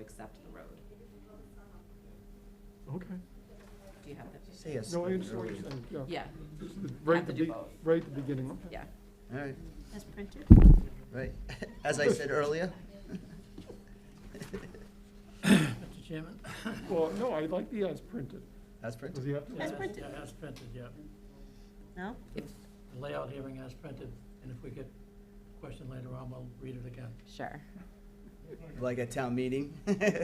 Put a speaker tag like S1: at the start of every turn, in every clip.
S1: accept the road.
S2: Okay.
S1: Do you have that?
S3: Say yes.
S2: No, I understand what you're saying, yeah.
S1: Yeah,
S2: Right
S1: Have
S2: at the
S1: to do
S2: be-
S1: both.
S2: Right at the beginning, okay.
S1: yeah.
S3: All right,
S1: As printed?
S3: right. As I said earlier.
S4: Mr. Chairman?
S2: Well, no, I like the as printed.
S3: That's
S2: Does
S3: printed.
S2: he have to?
S1: As
S4: Yeah,
S1: printed.
S4: yeah, As printed, yeah.
S1: No?
S4: The Layout hearing as printed, and if we get a question later on, we'll read it again.
S1: Sure.
S3: Like a town meeting.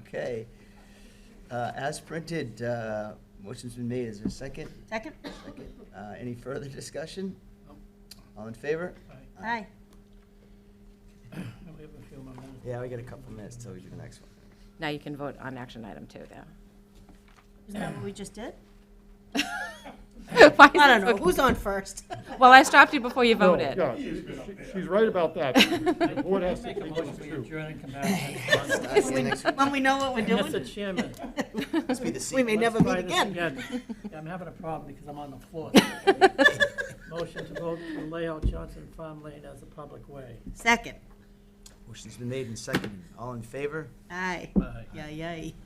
S3: Okay. Uh, As printed, uh, motion's been made. Is there a second?
S1: Second?
S3: Second. Uh, Any further discussion?
S4: Nope.
S3: All in favor?
S4: All right,
S1: Aye.
S4: now we have a few more minutes.
S3: Yeah, we got a couple minutes till we do the next one.
S5: Now you can vote on action item two,
S1: Isn't that what we just did?
S5: though. Why is
S1: I
S5: it
S1: don't know,
S5: so-
S1: who's on first?
S5: Well, I stopped you before you
S2: No,
S5: voted.
S2: Yeah, she- she- she's right about that. The board has to
S4: Make a
S2: take
S4: motion
S2: those
S4: we
S2: two.
S4: adjourn and come back.
S3: I'll see you next week.
S1: When we know what we're doing?
S4: Mr. Chairman.
S3: Must be the
S1: We
S3: secret.
S1: may never
S4: let's try
S1: meet
S4: this
S1: again.
S4: Yeah, I'm having a problem because I'm on the floor. Motion to vote to lay out Johnson Farm Lane as a public way.
S1: Second.
S3: Motion's been made and seconded. All in favor?
S1: Aye.
S4: Aye.
S1: Yay, yay.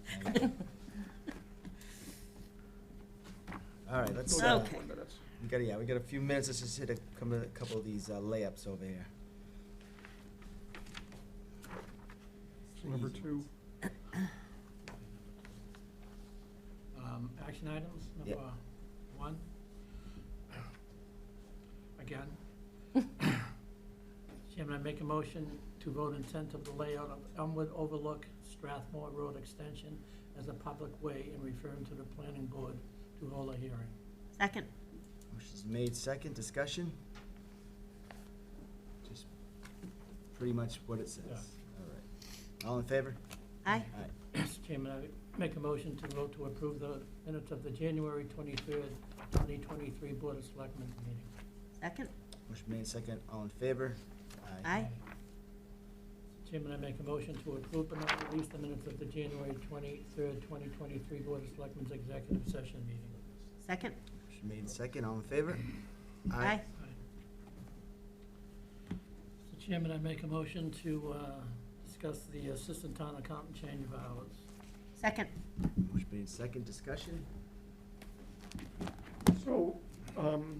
S3: All right, let's, uh,
S1: Okay.
S3: we got, yeah, we got a few minutes. Let's just hit a couple of- couple of these uh, layups over here.
S2: Number two,
S4: Um, Action items,
S3: Yeah.
S4: number one. Again. Chairman, I make a motion to vote intent of the layout of Elmwood Overlook Strathmore Road Extension as a public way and referring to the planning board to hold a hearing.
S1: Second.
S3: Motion's made second. Discussion? Just pretty much what it says.
S4: Yeah.
S3: All right. All in favor?
S1: Aye.
S3: All right.
S4: Mr. Chairman, I make a motion to vote to approve the minutes of the January twenty-third, twenty twenty-three Board of Selectmen meeting.
S1: Second.
S3: Motion made second. All in favor?
S1: Aye.
S4: Chairman, I make a motion to approve but not release the minutes of the January twenty-third, twenty twenty-three Board of Selectmen's Executive Session meeting.
S1: Second.
S3: Motion made second. All in favor?
S1: Aye.
S4: Mr. Chairman, I make a motion to uh, discuss the Assistant Town Accountant change of hours.
S1: Second.
S3: Motion made second. Discussion?
S2: so, um,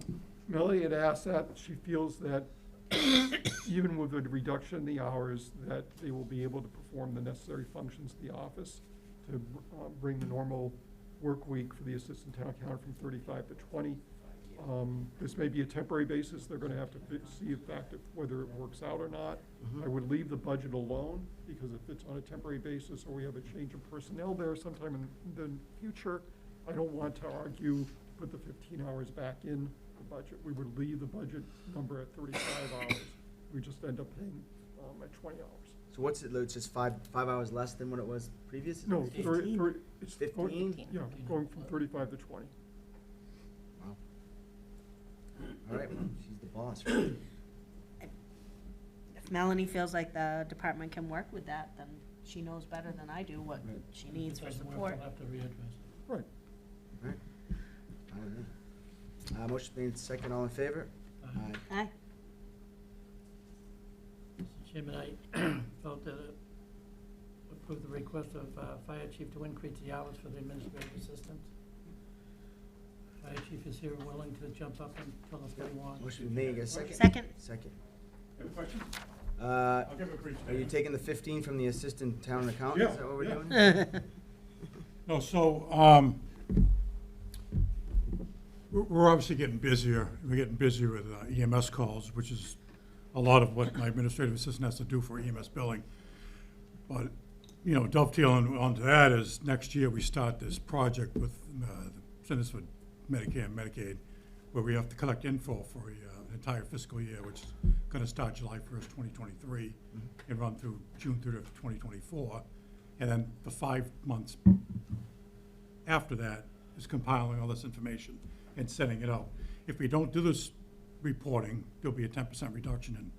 S2: Melanie had asked that, she feels that even with the reduction in the hours, that they will be able to perform the necessary functions of the office to uh, bring the normal work week for the assistant town accountant from thirty-five to twenty. Um, This may be a temporary basis, they're gonna have to fi- see in fact if- whether it works out or not. I would leave the budget alone, because if it's on a temporary basis, or we have a change of personnel there sometime in the future, I don't want to argue, put the fifteen hours back in the budget. We would leave the budget number at thirty-five hours, we just end up paying um, at twenty hours.
S3: So what's it, it's just five, five hours less than what it was previous?
S2: No,
S3: Fifteen?
S2: thirty, thirty, it's. going-
S3: Fifteen?
S2: Yeah, going from thirty-five to twenty.
S3: Wow. All right, well, she's the boss. right?
S1: If Melanie feels like the department can work with that, then she knows better than I do what
S3: Right.
S1: she needs
S4: If
S1: for
S4: it doesn't work,
S1: support.
S4: We'll have to readdress it.
S2: Right,
S3: All right. I don't know. Uh, motion made second. All in favor?
S4: Aye.
S3: Aye.
S1: Aye.
S4: Mr. Chairman, I felt that it approved the request of uh, Fire Chief to increase the hours for the administrative assistant. Fire Chief is here willing to jump up and tell us what he wants.
S3: Motion made, got a second?
S1: Second.
S3: Second.
S6: Have a question?
S3: Uh,
S6: I'll give a brief.
S3: are you taking the fifteen from the assistant town accountant? Is
S6: Yeah,
S3: that what we're
S6: yeah.
S3: doing?
S6: No, so, um, we're- we're obviously getting busier. We're getting busier with uh, EMS calls, which is a lot of what my administrative assistant has to do for EMS billing. But, you know, dovetailing onto that is next year we start this project with uh, the Centers for Medicare and Medicaid, where we have to collect info for a, uh, an entire fiscal year, which is going to start July 1st, 2023, and run through June 30th, 2024. And then the five months after that is compiling all this information and sending it out. If we don't do this reporting, there'll be a ten percent reduction in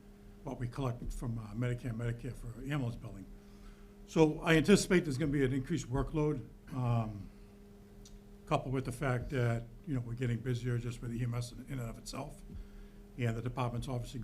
S6: what we collect from uh, Medicare, Medicare for ambulance billing. So I anticipate there's gonna be an increased workload, um, coupled with the E fact that, you know, we're getting busier just with EMS in and of itself. And the department's obviously